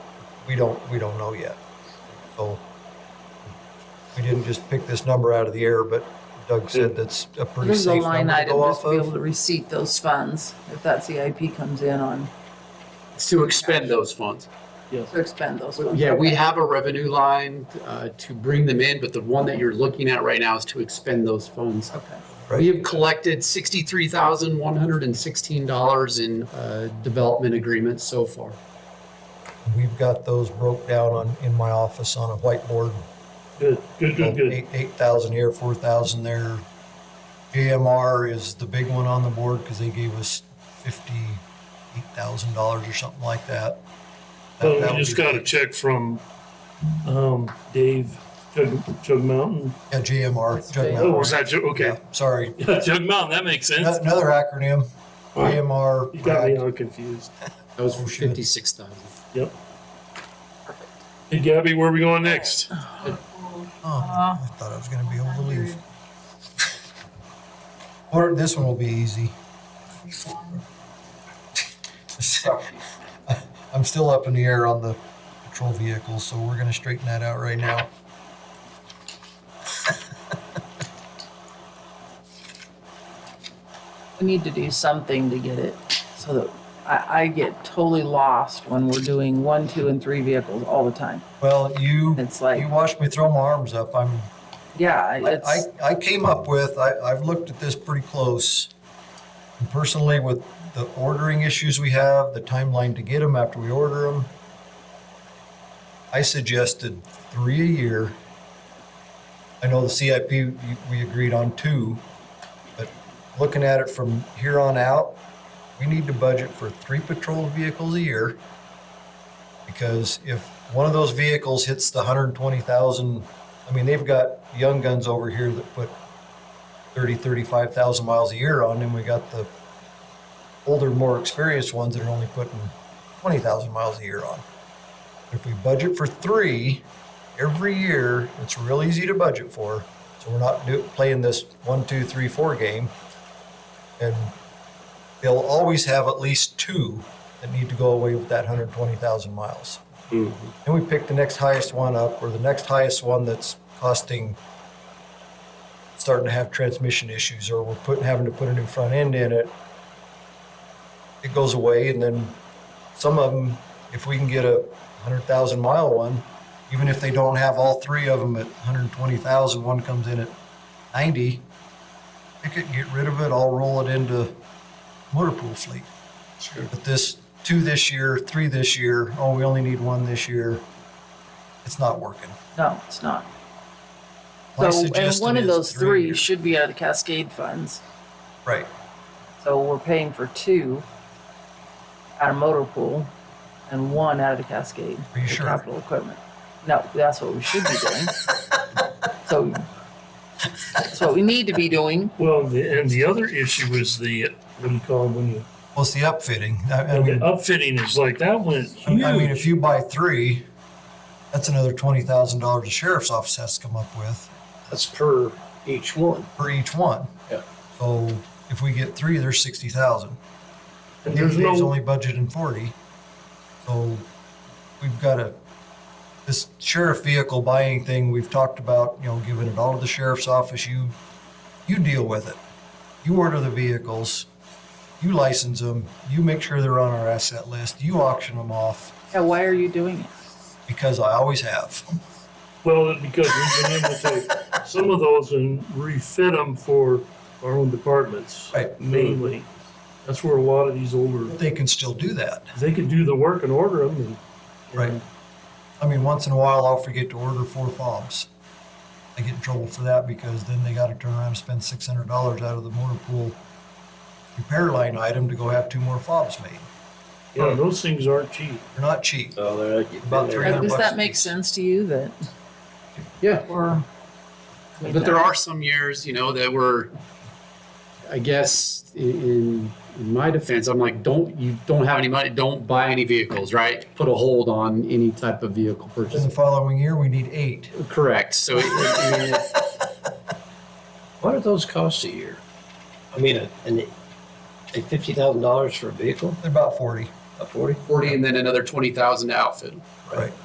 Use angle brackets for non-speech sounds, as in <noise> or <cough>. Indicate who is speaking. Speaker 1: we don't, we don't know yet. So we didn't just pick this number out of the air, but Doug said that's a pretty
Speaker 2: There's a
Speaker 1: safe
Speaker 2: line
Speaker 1: number to
Speaker 2: item
Speaker 1: go
Speaker 2: just
Speaker 1: off
Speaker 2: to be able
Speaker 1: of.
Speaker 2: to receipt those funds if that CIP comes in on,
Speaker 3: It's to expend those funds.
Speaker 2: to expend those funds.
Speaker 3: Yeah, we
Speaker 2: Okay.
Speaker 3: have a revenue line uh, to bring them in, but the one that you're looking at right now is to expend those funds.
Speaker 2: Okay.
Speaker 3: We have collected sixty-three thousand one hundred and sixteen dollars in uh, development agreements so far.
Speaker 1: We've got those broke down on, in my office on a whiteboard.
Speaker 4: Good, good, good, good.
Speaker 1: Eight, eight thousand here, four thousand there. JMR is the big one on the board because they gave us fifty-eight thousand dollars or something like that. That-
Speaker 4: So
Speaker 1: that
Speaker 4: we
Speaker 1: would
Speaker 4: Oh, just
Speaker 1: be-
Speaker 4: got a check from, um, Dave Jug, Jug Mountain.
Speaker 1: Yeah, JMR. Jug
Speaker 4: Oh,
Speaker 1: Mountain.
Speaker 4: was that Jug, okay.
Speaker 1: Yeah, Sorry,
Speaker 4: <laughs> Jug Mountain, that makes sense.
Speaker 1: Ano- another acronym,
Speaker 4: You got me
Speaker 1: JMR.
Speaker 4: all confused.
Speaker 3: That was
Speaker 1: Oh, shit.
Speaker 3: fifty-six thousand.
Speaker 4: Yep. Hey Gabby, where are we going next?
Speaker 1: Oh, I thought I was gonna be able to leave. <laughs> Or this one will be easy. <laughs> I'm still up in the air on the patrol vehicles, so we're gonna straighten that out right now.
Speaker 2: We need to do something to get it so that I, I get totally lost when we're doing one, two, and three vehicles all the time.
Speaker 1: Well, you,
Speaker 2: It's
Speaker 1: you
Speaker 2: like,
Speaker 1: watched me throw my arms up. I'm,
Speaker 2: yeah, I-
Speaker 1: I, I,
Speaker 2: it's,
Speaker 1: I came up with, I, I've looked at this pretty close. And Personally, with the ordering issues we have, the timeline to get them after we order them, I suggested three a year. I know the CIP, you- we agreed on two, but looking at it from here on out, we need to budget for three patrol vehicles a year. Because if one of those vehicles hits the hundred and twenty thousand I mean, they've got young guns over here that put 30, 35,000 miles a year on, and we got the older, more experienced ones that are only putting 20,000 miles a year on. If we budget for three every year, it's real easy to budget for. So we're not do, playing this one, two, three, four game. And they'll always have at least two that need to go away with that 120,000 miles. And we pick the next highest one up or the next highest one that's costing, starting to have transmission issues or we're putting, having to put a new front end in it. It goes away and then some of them, if we can get a hundred thousand mile one, even if they don't have all three of them at 120,000, one comes in at 90, pick it, get rid of it, I'll roll it into motor pool fleet.
Speaker 3: Sure.
Speaker 1: But this, two this year, three this year, oh, we only need one this year. It's not working.
Speaker 2: no, it's not.
Speaker 1: My
Speaker 2: So, and
Speaker 1: suggestion
Speaker 2: one of
Speaker 1: is
Speaker 2: those
Speaker 1: a
Speaker 2: three
Speaker 1: year.
Speaker 2: should be out of the Cascade funds.
Speaker 1: Right,
Speaker 2: So we're paying for two out of motor pool and one out of the Cascade.
Speaker 1: Are you
Speaker 2: for
Speaker 1: sure?
Speaker 2: Capital equipment. No, that's what we should be
Speaker 1: <laughs>
Speaker 2: doing. So that's what we need to be doing.
Speaker 4: Well, the- and the other issue is the, what do you call it when you,
Speaker 1: well, it's the upfitting. I, I
Speaker 4: the
Speaker 1: mean,
Speaker 4: upfitting is like, that went
Speaker 1: I- I mean,
Speaker 4: huge.
Speaker 1: if you buy three, that's another twenty thousand dollars the sheriff's office has to come up with
Speaker 5: That's per each one.
Speaker 1: for each one.
Speaker 5: Yeah.
Speaker 1: So if we get three, there's sixty thousand.
Speaker 4: And
Speaker 1: There's
Speaker 4: There's no,
Speaker 1: only budgeting forty, so we've got a, this sheriff vehicle buying thing, we've talked about, you know, giving it all to the sheriff's office, you, you deal with it. You order the vehicles, you license them, you make sure they're on our asset list, you auction them off,
Speaker 2: Yeah, why are you doing it?
Speaker 1: because I always have.
Speaker 4: well, because we've been able to take some of those and refit them for our own departments
Speaker 1: Right.
Speaker 4: mainly. That's where a lot of these older,
Speaker 1: But They can still do that.
Speaker 4: they could do the work and order them and.
Speaker 1: Right. I mean, once in a while, I'll forget to order four fobs. I get in trouble for that because then they gotta turn around and spend six hundred dollars out of the motor pool repair line item to go have two more fobs made.
Speaker 4: Yeah, those things aren't cheap.
Speaker 1: They're not cheap.
Speaker 5: So they're
Speaker 1: About three
Speaker 2: Like,
Speaker 1: hundred
Speaker 2: Does
Speaker 1: bucks
Speaker 2: that
Speaker 1: a
Speaker 2: make
Speaker 1: piece.
Speaker 2: sense to you that?
Speaker 3: Yeah.
Speaker 2: Or. I mean,
Speaker 3: But there are some years, you know, that were, I guess, i- in, in my defense, I'm like, don't, you don't have any money, don't buy any vehicles, right? Put a hold on any type of vehicle
Speaker 1: In
Speaker 3: purchase.
Speaker 1: the following year, we need eight.
Speaker 3: Correct. So it- I mean, it-
Speaker 5: What do those cost a year? I mean, a, an, a fifty thousand dollars for a vehicle,
Speaker 1: They're about forty.
Speaker 5: a forty?
Speaker 3: 40 and then another 20,000 to outfit.
Speaker 1: Right.